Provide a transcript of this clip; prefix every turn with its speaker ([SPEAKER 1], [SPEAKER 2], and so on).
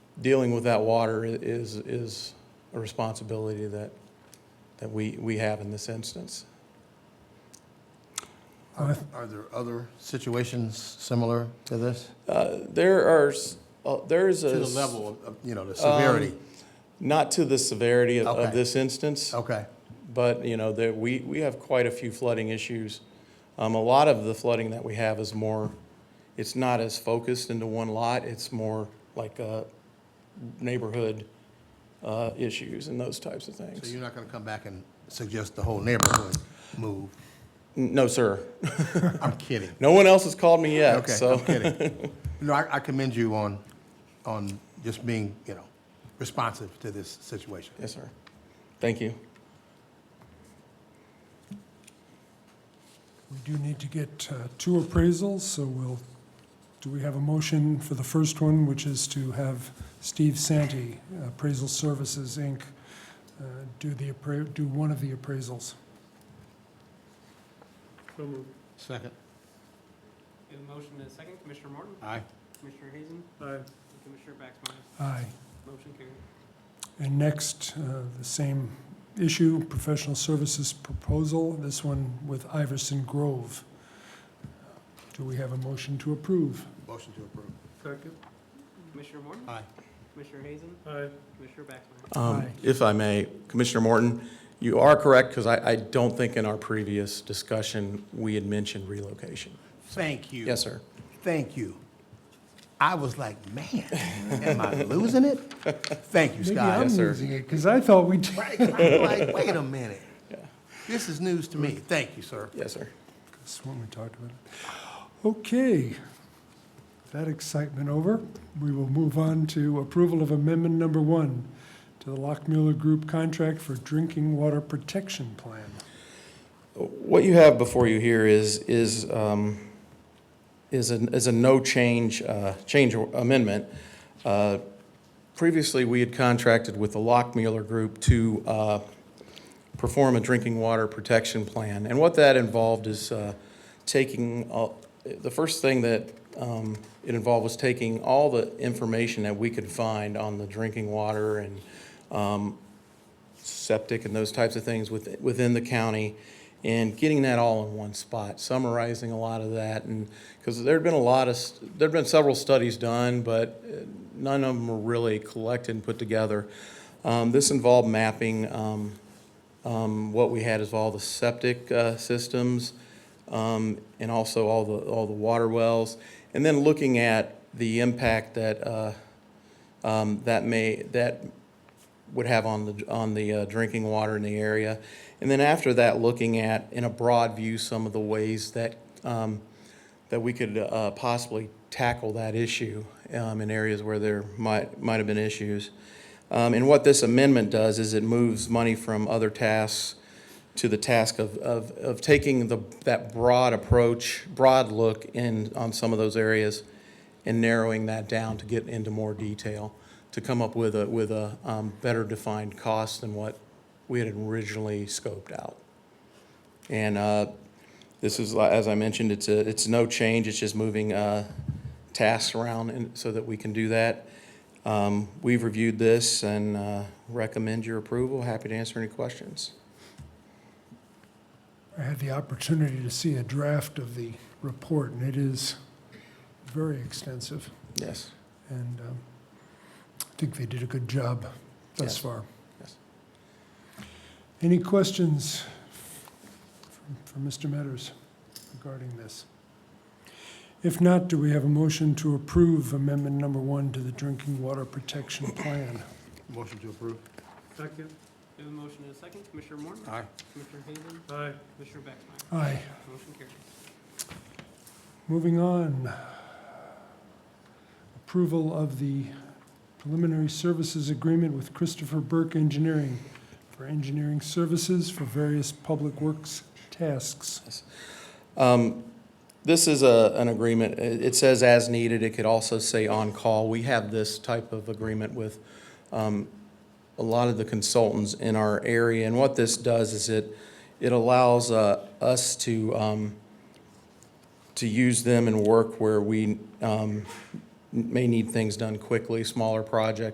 [SPEAKER 1] dealing with that water i- is, is a responsibility that, that we, we have in this instance.
[SPEAKER 2] Are are there other situations similar to this?
[SPEAKER 1] Uh, There are, s- uh, there is
[SPEAKER 2] To
[SPEAKER 1] a.
[SPEAKER 2] the
[SPEAKER 1] s-
[SPEAKER 2] level of, you know, the severity?
[SPEAKER 1] Not to the severity of, of
[SPEAKER 2] Okay.
[SPEAKER 1] this instance,
[SPEAKER 2] Okay,
[SPEAKER 1] but, you know, there, we, we have quite a few flooding issues. Um, a lot of the flooding that we have is more, it's not as focused into one lot, it's more like, uh, neighborhood, uh, issues and those types of
[SPEAKER 2] so
[SPEAKER 1] things.
[SPEAKER 2] you're not going to come back and suggest the whole neighborhood move?
[SPEAKER 1] N- No, sir.
[SPEAKER 2] I'm kidding.
[SPEAKER 1] No one else has called me yet,
[SPEAKER 2] Okay,
[SPEAKER 1] so.
[SPEAKER 2] I'm kidding. No, I I commend you on, on just being, you know, responsive to this situation.
[SPEAKER 1] Yes, sir. Thank you.
[SPEAKER 3] We do need to get uh, two appraisals, so we'll, do we have a motion for the first one, which is to have Steve Santee, Appraisal Services, Inc., uh, do the, appra- do one of the appraisals?
[SPEAKER 2] Second.
[SPEAKER 4] We have a motion and a second. Commissioner Morton?
[SPEAKER 2] Aye.
[SPEAKER 4] Commissioner Hazen?
[SPEAKER 5] Aye.
[SPEAKER 4] and Commissioner Baxmeyer?
[SPEAKER 3] Aye.
[SPEAKER 4] Motion carried.
[SPEAKER 3] And next, uh, the same issue, professional services proposal, this one with Iverson Grove. Do we have a motion to approve?
[SPEAKER 2] Motion to approve.
[SPEAKER 5] Second.
[SPEAKER 4] Commissioner Morton?
[SPEAKER 2] Aye.
[SPEAKER 4] Commissioner Hazen?
[SPEAKER 5] Aye.
[SPEAKER 4] Commissioner Baxmeyer?
[SPEAKER 1] Um,
[SPEAKER 3] Aye.
[SPEAKER 1] If I may, Commissioner Morton, you are correct, because I, I don't think in our previous discussion, we had mentioned relocation.
[SPEAKER 2] Thank you.
[SPEAKER 1] Yes, sir.
[SPEAKER 2] Thank you. I was like, man, am I losing it? Thank you,
[SPEAKER 3] Maybe
[SPEAKER 2] Scott.
[SPEAKER 3] I'm
[SPEAKER 1] Yes, sir.
[SPEAKER 3] losing it, because I thought we, did.
[SPEAKER 2] Right, I'm like, wait a minute. This is news to me. Thank you, sir.
[SPEAKER 1] Yes, sir.
[SPEAKER 3] That's when we talked about it. Okay, that excitement over, we will move on to approval of amendment number one to the Lockmuller Group contract for drinking water protection plan.
[SPEAKER 1] What you have before you here is, is, um, is a, is a no change, uh, change amendment. Uh, Previously, we had contracted with the Lockmuller Group to, uh, perform a drinking water protection plan. And what that involved is, uh, taking, uh, the first thing that, um, it involved was taking all the information that we could find on the drinking water and, um, septic and those types of things with- within the county and getting that all in one spot, summarizing a lot of that. And, because there'd been a lot of, st- there'd been several studies done, but uh, none of them were really collected and put together. Um, This involved mapping um, um, what we had is all the septic uh, systems um, and also all the, all the water wells. And then looking at the impact that, uh, um, that may, that would have on the, on the uh, drinking water in the area. And then after that, looking at, in a broad view, some of the ways that, um, that we could uh, possibly tackle that issue um, in areas where there might, might have been issues. Um, And what this amendment does is it moves money from other tasks to the task of, of, of taking the, that broad approach, broad look in, on some of those areas and narrowing that down to get into more detail, to come up with a, with a um, better defined cost than what we had originally scoped out. And uh, this is, li- as I mentioned, it's a, it's no change, it's just moving uh, tasks around and so that we can do that. Um, We've reviewed this and uh, recommend your approval. Happy to answer any questions.
[SPEAKER 3] I had the opportunity to see a draft of the report, and it is very extensive,
[SPEAKER 1] Yes.
[SPEAKER 3] and um, I think they did a good job thus
[SPEAKER 1] Yes.
[SPEAKER 3] far.
[SPEAKER 1] Yes.
[SPEAKER 3] Any questions from- from Mr. Metters regarding this? If not, do we have a motion to approve amendment number one to the drinking water protection plan?
[SPEAKER 2] Motion to approve.
[SPEAKER 5] Second.
[SPEAKER 4] We have a motion and a second. Commissioner Morton?
[SPEAKER 2] Aye.
[SPEAKER 4] Commissioner Hazen?
[SPEAKER 5] Aye.
[SPEAKER 4] Commissioner Baxmeyer?
[SPEAKER 3] Aye.
[SPEAKER 4] Motion carried.
[SPEAKER 3] Moving on. Approval of the preliminary services agreement with Christopher Burke Engineering for engineering services for various public works tasks.
[SPEAKER 1] Um, This is a, an agreement, it it says as needed, it could also say on call. We have this type of agreement with um, a lot of the consultants in our area. And what this does is it, it allows uh, us to, um, to use them and work where we um, may need things done quickly, smaller projects.